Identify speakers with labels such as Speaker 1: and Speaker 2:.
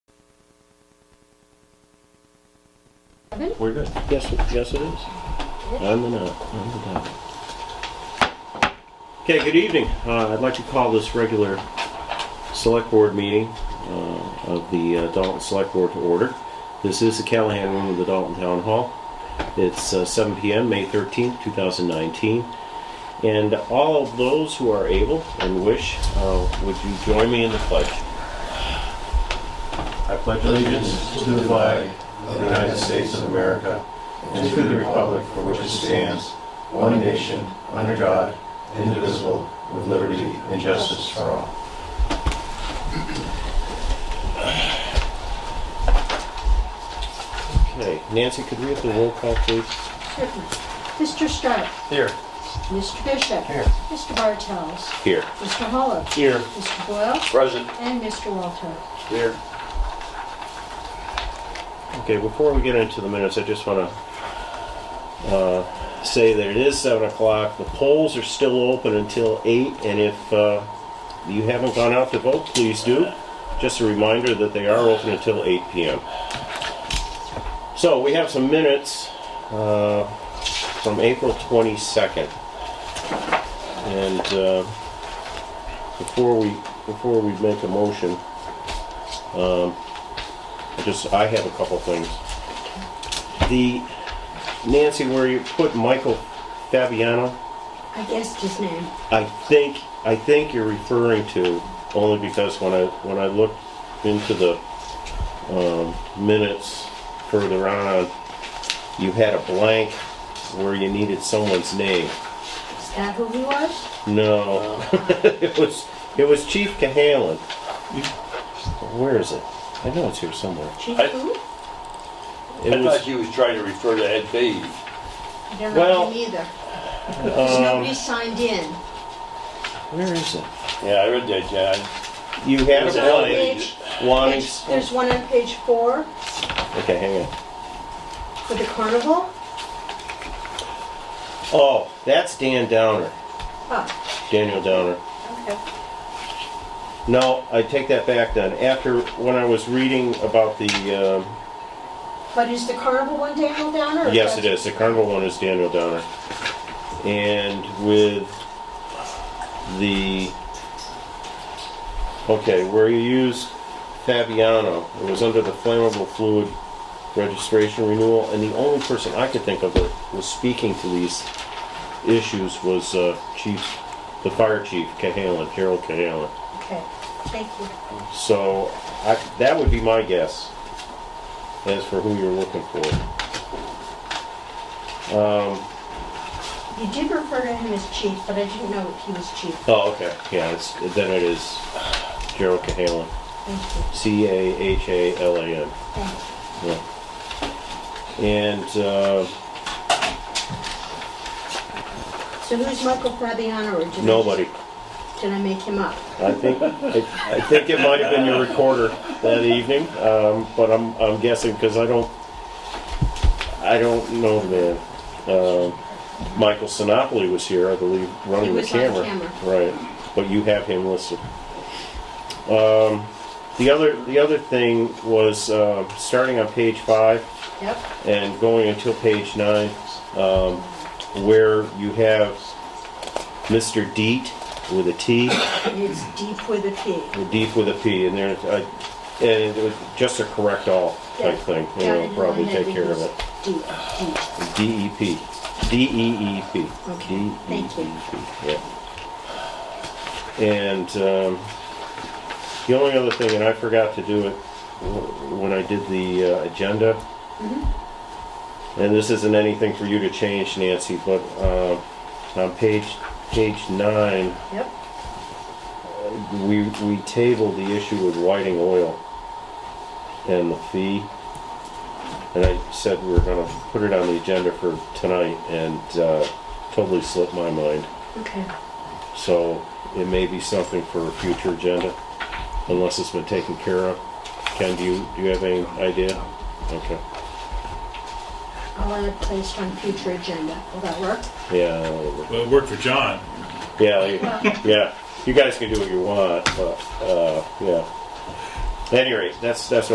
Speaker 1: good?
Speaker 2: We're good. Yes, it- yes it is. On the dot, on the dot. Okay, good evening. Uh, I'd like to call this regular select board meeting uh, of the uh, Dalton Select Board to order. This is the Callahan Room of the Dalton Town Hall. It's uh, 7 PM, May 13th, 2019. And all of those who are able and wish, uh, would you join me in the pledge? I pledge
Speaker 3: allegiance to the flag of the United States of America and to the republic for which it stands, one nation, under God, indivisible, with liberty and justice for all.
Speaker 2: Okay, Nancy, could we have the roll call, please?
Speaker 1: Certainly. Mr. Stark.
Speaker 2: Here.
Speaker 1: Mr. Bishop.
Speaker 3: Here.
Speaker 1: Mr. Bartels.
Speaker 2: Here.
Speaker 1: Mr. Hollow.
Speaker 2: Here.
Speaker 1: Mr. Boyle.
Speaker 4: Present.
Speaker 1: And Mr. Walter.
Speaker 4: Here.
Speaker 2: Okay, before we get into the minutes, I just want to uh, say that it is seven o'clock. The polls are still open until eight, and if uh, you haven't gone out to vote, please do. Just a reminder that they are open until eight p.m. So we have some minutes uh, from April twenty-second, and uh, before we before we make a motion. I just, I have a couple things. The, Nancy, where you put Michael Fabiano,
Speaker 1: I guessed his name.
Speaker 2: I think, I think you're referring to, only because when I, when I looked into the um, minutes further on, you had a blank where you needed someone's name.
Speaker 1: Is that who he was?
Speaker 2: No, it was, it was Chief Cahalan. Where is it? I know it's here somewhere.
Speaker 1: Chief
Speaker 4: I-
Speaker 1: who?
Speaker 2: It
Speaker 4: I
Speaker 2: was-
Speaker 4: thought you was trying to refer to Ed Beatty.
Speaker 1: I don't
Speaker 2: well, um,
Speaker 1: know him either. Because nobody signed in.
Speaker 2: Where is it?
Speaker 4: Yeah, I read that, John.
Speaker 2: You had a
Speaker 4: Was it
Speaker 2: blank.
Speaker 1: Page-
Speaker 2: Wanting,
Speaker 1: page- There's one on page four
Speaker 2: okay, hang on.
Speaker 1: for the carnival.
Speaker 2: Oh, that's Dan Downer,
Speaker 1: Oh,
Speaker 2: Daniel Downer.
Speaker 1: okay.
Speaker 2: No, I take that back then. After, when I was reading about the, um,
Speaker 1: But is the carnival one Daniel Downer? or
Speaker 2: yes, it
Speaker 1: that's-
Speaker 2: is, the carnival one is Daniel Downer. And with the, okay, where you use Fabiano, it was under the flammable fluid registration renewal, and the only person I could think of that was speaking to these issues was uh, Chief, the fire chief, Cahalan, Gerald Cahalan.
Speaker 1: Okay, thank you.
Speaker 2: So I, that would be my guess as for who you're looking for. Um,
Speaker 1: You did refer to him as chief, but I didn't know he was chief.
Speaker 2: oh, okay. Yeah, it's, then it is uh, Gerald Cahalan.
Speaker 1: Thank you,
Speaker 2: C A H A L A N.
Speaker 1: thank you.
Speaker 2: Yeah. And uh,
Speaker 1: So who's Michael Fabiano or did I just-
Speaker 2: nobody.
Speaker 1: Did I make him up?
Speaker 2: I think I, I think it might have been your recorder that evening, um, but I'm I'm guessing because I don't I don't know the man. Um Michael Sinopoli was here, I believe, running
Speaker 1: He
Speaker 2: the
Speaker 1: was on
Speaker 2: camera. Right, but you have him listed. Um, the other the other thing was uh, starting on page five
Speaker 1: Yep.
Speaker 2: and going until page nine, um, where you have Mr. Deet with a T.
Speaker 1: It's deep with a P.
Speaker 2: Deep with a P, and there's, uh, and it was just a correct all type thing, you
Speaker 1: Yeah,
Speaker 2: know,
Speaker 1: and
Speaker 2: probably
Speaker 1: then
Speaker 2: take
Speaker 1: maybe
Speaker 2: care of
Speaker 1: he's
Speaker 2: it. E
Speaker 1: Deep, deep.
Speaker 2: DEP, D-E-E-P.
Speaker 1: Okay,
Speaker 2: DEEP,
Speaker 1: thank you.
Speaker 2: E Yeah. And, um, the only other thing, and I forgot to do it wh- when I did the, uh, agenda.
Speaker 1: Mm-hmm.
Speaker 2: And this isn't anything for you to change, Nancy, but, uh, on page, page nine,
Speaker 1: Yep.
Speaker 2: we, we tabled the issue with whiting oil and the fee. And I said we were gonna put it on the agenda for tonight and, uh, totally slipped my mind.
Speaker 1: Okay.
Speaker 2: So it may be something for a future agenda, unless it's been taken care of. Ken, do you, do you have any idea? Okay,
Speaker 1: I'll add it placed on future agenda. Will that work?
Speaker 2: yeah,
Speaker 5: Well, it worked for John.
Speaker 2: yeah, you- yeah. You guys can do what you want, but, uh, yeah. At any rate, that's, that's